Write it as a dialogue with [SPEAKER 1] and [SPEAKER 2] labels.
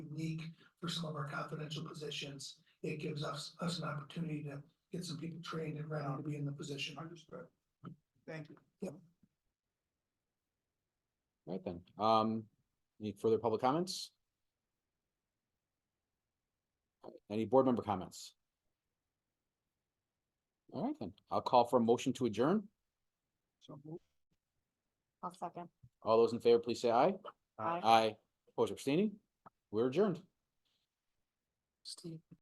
[SPEAKER 1] unique for some of our confidential positions. It gives us, us an opportunity to get some people trained and ready to be in the position. Understood. Thank you.
[SPEAKER 2] Right then, um, any further public comments? Any board member comments? All right then, I'll call for a motion to adjourn.
[SPEAKER 1] So move.
[SPEAKER 3] I'll second.
[SPEAKER 2] All those in favor, please say aye.
[SPEAKER 3] Aye.
[SPEAKER 2] Aye. Opposed, or abstaining, we're adjourned.
[SPEAKER 3] Steve.